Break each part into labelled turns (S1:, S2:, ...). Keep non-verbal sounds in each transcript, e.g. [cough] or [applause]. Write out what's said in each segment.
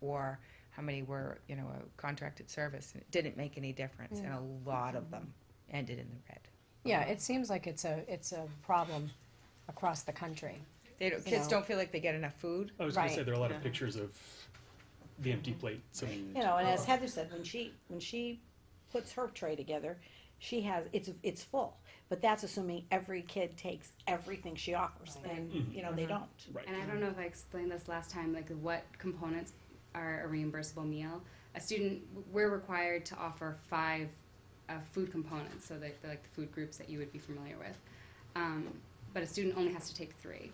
S1: or how many were, you know, a contracted service. And it didn't make any difference, and
S2: Mm.
S1: a lot of them ended in the red.
S2: Yeah, it seems like it's a, it's a problem across the country.
S1: They don't,
S2: You
S1: kids
S2: know.
S1: don't feel like they get enough food.
S3: I was gonna say,
S2: Right.
S3: there are a lot of pictures of the empty plate, so.
S4: You know, and
S2: Oh.
S4: as Heather said, when she, when she puts her tray together, she has, it's, it's full. But that's assuming every kid takes everything she offers and,
S2: Mm-hmm.
S4: you know, they don't.
S3: Right.
S5: And I don't know if I explained this last time, like what components are a reimbursable meal. A student, we're required to offer five uh, food components, so like the, like the food groups that you would be familiar with. Um, but a student only has to take three.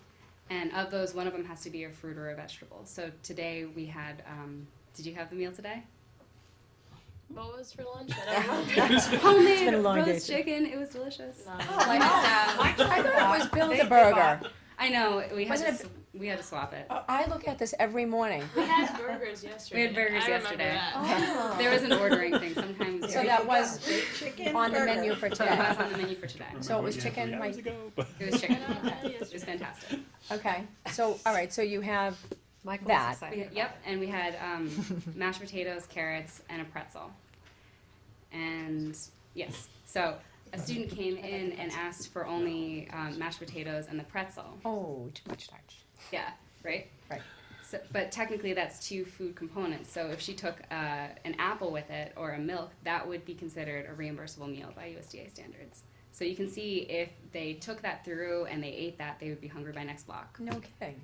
S5: And of those, one of them has to be a fruit or a vegetable. So today we had, um, did you have the meal today?
S6: What was for lunch?
S5: [laughs]
S6: I don't remember.
S5: Homemade
S4: been a long day
S5: roast
S4: too.
S5: chicken. It was delicious.
S6: Lunch.
S2: Oh, um, I thought it was Build
S1: They-
S2: a
S1: they
S2: Burger.
S5: I know we had
S2: Wasn't
S5: to,
S2: it-
S5: s- we had to swap it.
S2: I look at this every morning.
S6: We had burgers yesterday.
S5: burgers
S6: I remember
S5: yesterday.
S6: that.
S2: Oh.
S5: There was an ordering thing sometimes.
S2: So
S5: we-
S2: that
S4: [laughs]
S2: was
S4: Chicken
S2: on the
S4: burger.
S2: menu for
S5: So it
S2: today.
S5: was on the menu for today.
S3: Remember
S2: So it
S3: what
S2: was
S3: you had
S2: chicken,
S3: three
S2: my-
S3: hours ago, but-
S5: It was chicken.
S6: I don't know,
S5: It was
S6: yesterday.
S2: [laughs]
S5: fantastic.
S2: Okay, so, all right, so you have that.
S5: We- yep, and we had um, mashed potatoes, carrots, and a pretzel. And yes, so a student came in and asked for only um, mashed potatoes and the pretzel.
S2: Oh, too much starch.
S5: Yeah, right?
S2: Right.
S5: So, but technically, that's two food components. So if she took uh, an apple with it or a milk, that would be considered a reimbursable meal by USDA standards. So you can see if they took that through and they ate that, they would be hungry by next block.
S2: No kidding.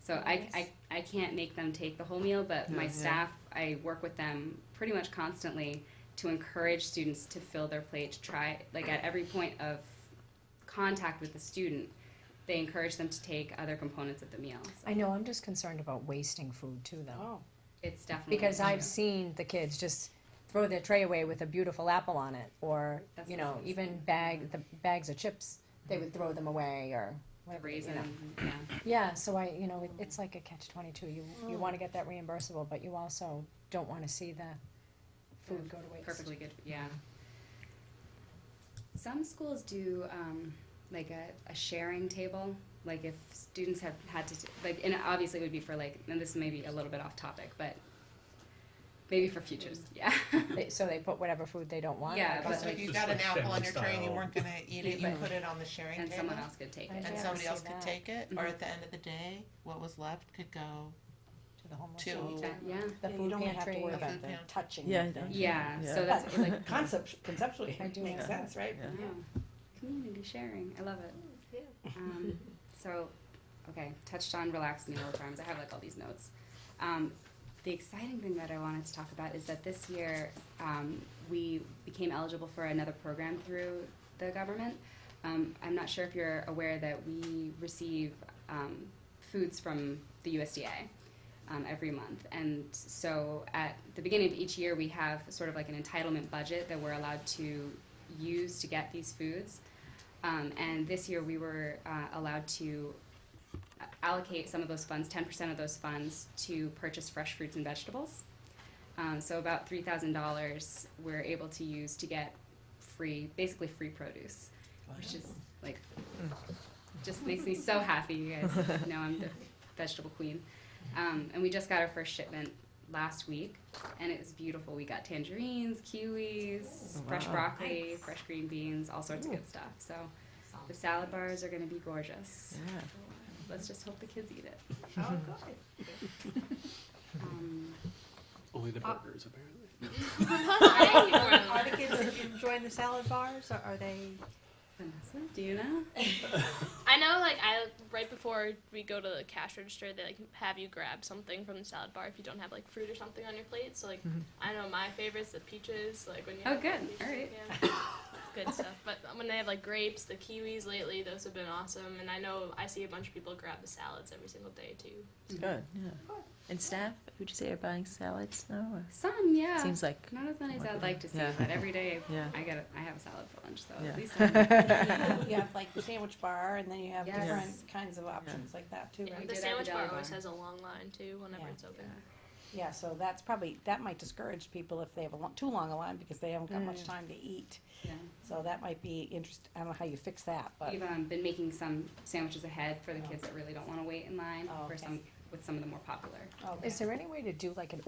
S5: So I, I, I can't make them take the whole meal, but my staff, I work with them pretty much constantly to encourage students to fill their plate, to try, like at every point of contact with the student, they encourage them to take other components of the meal. So
S2: I know, I'm just concerned about wasting food too, though.
S5: It's definitely.
S2: Because I've seen the kids just throw their tray away with a beautiful apple on it, or,
S5: That's
S2: you
S5: the
S2: know,
S5: same
S2: even bag, the bags of chips, they would throw them away, or
S5: The
S2: whatever, you
S5: raisin,
S2: know.
S5: yeah.
S2: Yeah, so I, you know, it, it's like a catch twenty-two, you, you
S5: Mm.
S2: wanna get that reimbursable, but you also don't wanna see the food go to waste.
S5: Perfectly good, yeah. Some schools do um, like a, a sharing table, like if students have had to, t- like, and obviously it would be for like, and this may be a little bit off topic, but maybe for futures, yeah.
S2: They- So they put whatever food they don't want?
S5: Yeah,
S2: I
S5: but
S2: guess.
S7: So if you
S3: Just
S7: got an
S3: like
S7: apple on
S3: family
S7: your tray and you
S3: style.
S7: weren't gonna eat it, you
S5: Yeah, [laughs] but-
S7: put it on the sharing
S5: And
S7: table?
S5: someone else could take
S2: I
S5: it.
S2: know.
S7: And
S2: Yeah,
S7: somebody
S2: I
S7: else
S2: see
S7: could
S2: that.
S7: take it, or
S5: Mhm.
S7: at the end of the day, what was left could go
S2: To the homeless.
S7: to
S5: Yeah, Yeah,
S2: The
S4: And you
S2: food
S4: don't have to
S2: pantry.
S4: worry
S2: the-
S7: the food
S4: about
S7: pantry.
S2: touching.
S8: Yeah, I
S2: everything.
S8: don't-
S5: yeah, so
S8: Yeah.
S5: that's it's like,
S4: Concept, conceptually,
S2: I do
S4: it makes
S2: like that.
S7: sense, right?
S5: yeah, community sharing, I love
S6: Yeah.
S5: it. Um, So, okay, touched on relaxed meal programs, I have like all these notes. Um, The exciting thing that I wanted to talk about is that this year, um, we became eligible for another program through the government. Um, I'm not sure if you're aware that we receive um, foods from the USDA um, every month. And so at the beginning of each year, we have sort of like an entitlement budget that we're allowed to use to get these foods. Um, and this year, we were uh, allowed to allocate some of those funds, 10% of those funds, to purchase fresh fruits and vegetables. Um, so about $3,000 we're able to use to get free, basically free produce, which is like, just makes me so happy. You guys know I'm the vegetable queen. Um, and we just got our first shipment last week, and it was beautiful. We got tangerines, kiwis, fresh broccoli, fresh green beans, all sorts of good stuff. So the salad bars are going to be gorgeous.
S8: Yeah.
S5: Let's just hope the kids eat it.
S7: Oh, good.
S5: [laughs] Um,
S3: Only the
S5: Uh,
S3: burgers, apparently.
S7: Are the kids enjoying the salad bars, or are they?
S5: Vanessa, do you know?
S6: I know, like, I right before we go to the cash register, they like have you grab something from the salad bar if you don't have like fruit or something on your plate. So like, I know my favorites, the peaches, like when you.
S5: Mm-hmm. Oh,
S6: have, like,
S5: good.
S6: peaches,
S5: All right.
S6: Yeah. good stuff. But when they have like grapes, the kiwis lately, those have been awesome. And I know I see a bunch of people grab the salads every single day too.
S8: Good, yeah. And staff, would you say are buying salads now? or-
S5: Some, yeah.
S8: Seems like,
S5: not as many as I'd like to see,
S8: Yeah.
S5: but every day
S8: [laughs] yeah.
S5: I get a, I have a salad for lunch, so
S8: Yeah.
S5: at least
S8: [laughs]
S5: I'm,
S2: [laughs]
S4: You have like the sandwich bar and then you have
S5: Yes.
S4: different kinds of options like that too,
S5: Yeah.
S4: right?
S5: we
S6: The
S5: did have a
S6: sandwich bar
S5: deli
S6: always
S5: bar.
S6: has a long line too whenever
S4: Yeah.
S6: it's open.
S4: Yeah, so that's probably, that might discourage people if they have a long, too long a line because they haven't got
S5: Mm.
S4: much time to eat.
S5: yeah.
S4: So that might be interest, I don't know how you fix that, but.
S5: We've um, been making some sandwiches ahead for the kids that really don't want to wait in line
S4: Oh,
S5: for
S4: okay.
S5: some with some of the more popular.
S4: okay.
S2: Is there any way to do like an